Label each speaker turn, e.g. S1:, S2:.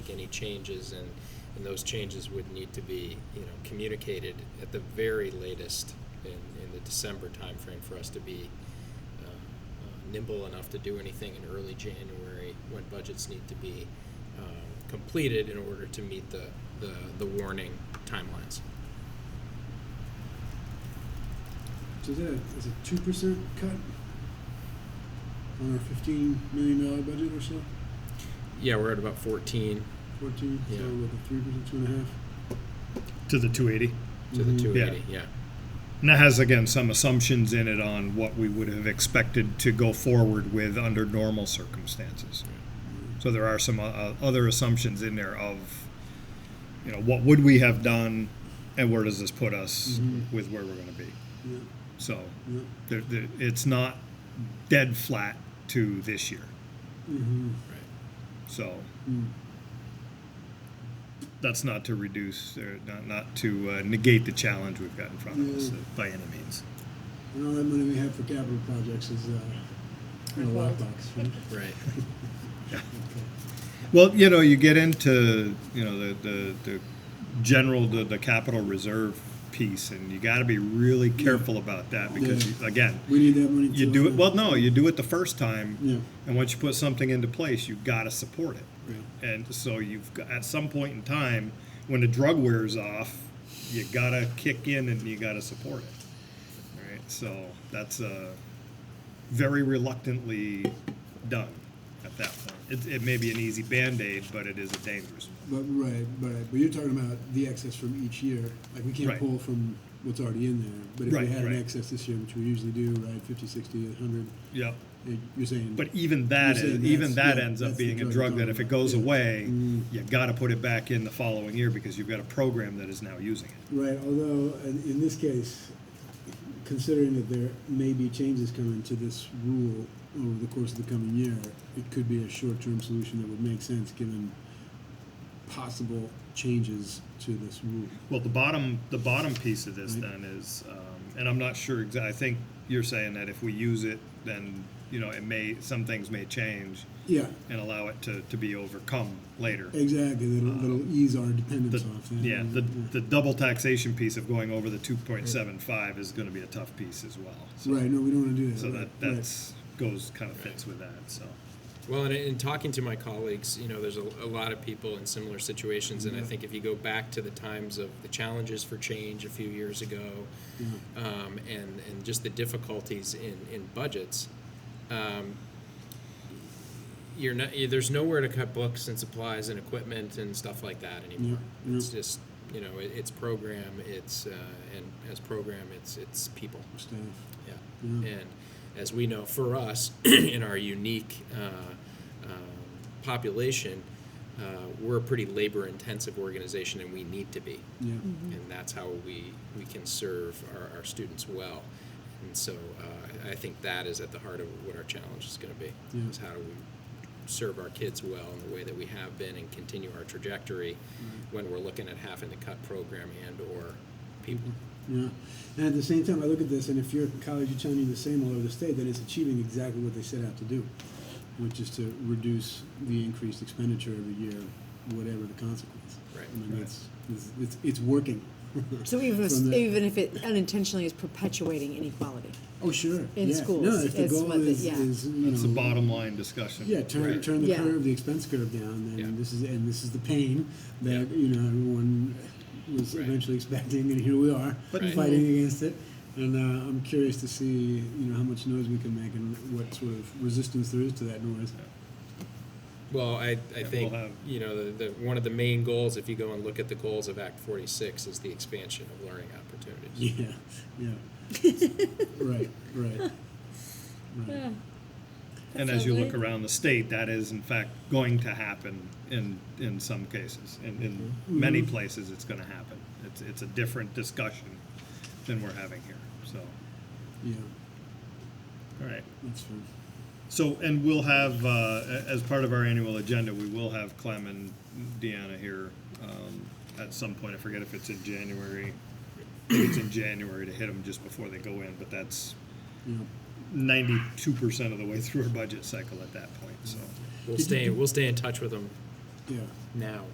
S1: any changes, and, and those changes would need to be, you know, communicated at the very latest in, in the December timeframe for us to be um, uh, nimble enough to do anything in early January when budgets need to be um, completed in order to meet the, the, the warning timelines.
S2: So is that a, is a two percent cut on our fifteen million dollar budget or so?
S1: Yeah, we're at about 14
S2: Fourteen, so
S1: Yeah.
S2: with a three percent, two and a half.
S3: to the 280.
S1: to
S2: Mhm.
S1: the
S2: Yeah.
S1: 280. Yeah.
S3: And that has, again, some assumptions in it on what we would have expected to go forward with under normal circumstances. So there are some uh, uh, other assumptions in there of, you know, what would we have done and where does this put us
S2: Mhm.
S3: with where we're going to be.
S2: Yeah,
S3: So
S2: yeah.
S3: there, there, it's not dead flat to this year.
S2: Mm-hmm.
S1: Right.
S3: So
S2: Mm.
S3: that's not to reduce or not, not to uh, negate the challenge we've got in front of us
S2: Mm.
S3: uh, by any means.
S2: And all that money we have for capital projects is uh, in a
S4: Revolved.
S2: lockbox, right?
S1: Right.
S3: Well, you know, you get into you know the the, the general the, the capital reserve piece, and you got to be really careful about that because
S2: Yeah.
S3: you, again,
S2: We need that money.
S3: you
S2: too,
S3: do it
S2: huh?
S3: well. No, you do it the first time,
S2: Yeah.
S3: and once you put something into place, you got to support it.
S2: Right.
S3: And so you've got, at some point in time, when the drug wears off, you gotta kick in and you gotta support it. Right. So that's uh, very reluctantly done at that point. It, it may be an easy band aid, but it is a dangerous one.
S2: But right, right. But you're talking about the excess from each year. Like we can't
S3: Right.
S2: pull from what's already in there. But if
S3: Right,
S2: we had
S3: right.
S2: an excess this year, which we usually do, right, 50, 60, 100,
S3: Yep.
S2: eh, you're saying.
S3: But even that
S2: You're saying
S3: is, even
S2: that's-
S3: that
S2: yeah,
S3: ends up
S2: that's the
S3: being a
S2: drug
S3: drug that
S2: zone,
S3: if it
S2: right,
S3: goes
S2: yeah.
S3: away,
S2: Mm.
S3: you gotta put it back in the following year because you've got a program that is now using it.
S2: Right, although in, in this case, considering that there may be changes coming to this rule over the course of the coming year, it could be a short-term solution that would make sense given possible changes to this rule.
S3: Well, the bottom, the bottom piece of this
S2: Right.
S3: then is, um, and I'm not sure exactly, I think you're saying that if we use it, then, you know, it may, some things may change
S2: Yeah,
S3: and allow it to, to be overcome later.
S2: exactly, that'll, that'll ease our dependence
S3: The-
S2: off that.
S3: Yeah, the, the double taxation piece of going over the two point seven five is gonna be a tough piece as well. So-
S2: Right, no, we don't wanna do that.
S3: So that,
S2: right, right.
S3: that's, goes, kind of fits with that, so.
S1: Well, and in talking to my colleagues, you know, there's a, a lot of people in similar situations, and I think if you go back to the times of the challenges for change a few years ago, um, and and just the difficulties in in budgets, um, you're not you- there's nowhere to cut books and supplies and equipment and stuff like that anymore.
S2: Yeah,
S1: It's
S2: yeah.
S1: just you know it, it's program, it's uh, and as program, it's it's people.
S2: Staff,
S1: Yeah.
S2: yeah,
S1: And as we know, for us, in our unique uh, um, population, uh, we're a pretty labor-intensive organization, and we need to be.
S2: yeah,
S1: And that's how we, we can serve our, our students well. And so uh, I I think that is at the heart of what our challenge is going to be,
S2: Yeah.
S1: is how do we serve our kids well in the way that we have been and continue our trajectory when we're looking at having to cut program and/or people.
S2: yeah. And at the same time, I look at this, and if your college is telling you the same all over the state, then it's achieving exactly what they set out to do. which is to reduce the increased expenditure every year, whatever the consequence.
S1: Right.
S2: I mean, it's, it's- it's, it's working.
S4: So even if,
S2: From the-
S4: even if it unintentionally is perpetuating inequality.
S2: Oh, sure.
S4: in
S2: yeah.
S4: schools,
S2: No, if the
S4: it's
S2: goal
S4: what the-
S2: is,
S4: yeah.
S2: is, you
S3: That's the
S2: know.
S3: bottom line discussion.
S2: Yeah, turn,
S1: Right.
S2: turn the
S4: Yeah.
S2: curve, the expense curve down,
S1: Yeah.
S2: and this is, and this is the pain that,
S1: Yeah.
S2: you know, everyone was
S1: Right.
S2: eventually expecting, and here we are,
S3: But-
S1: Right.
S2: fighting against it. And, uh, I'm curious to see, you know, how much noise we can make and what sort of resistance there is to that noise.
S1: Well, I, I
S3: we'll
S1: think,
S3: have-
S1: you know, the, the, one of the main goals, if you go and look at the goals of Act forty-six, is the expansion of learning opportunities.
S2: Yeah, yeah. right, right. right.
S3: And as you look around the state, that is in fact going to happen in, in some cases. In, in many places, it's gonna happen. It's, it's a different discussion than we're having here, so,
S2: Yeah,
S3: all right.
S2: that's true.
S3: So, and we'll have, uh, a- as part of our annual agenda, we will have Clem and Deanna here um, at some point. I forget if it's in January. I think it's in January to hit them just before they go in, but that's
S2: Yeah.
S3: ninety-two percent of the way through our budget cycle at that point, so.
S1: We'll stay, we'll stay in touch with them
S2: yeah.
S1: now.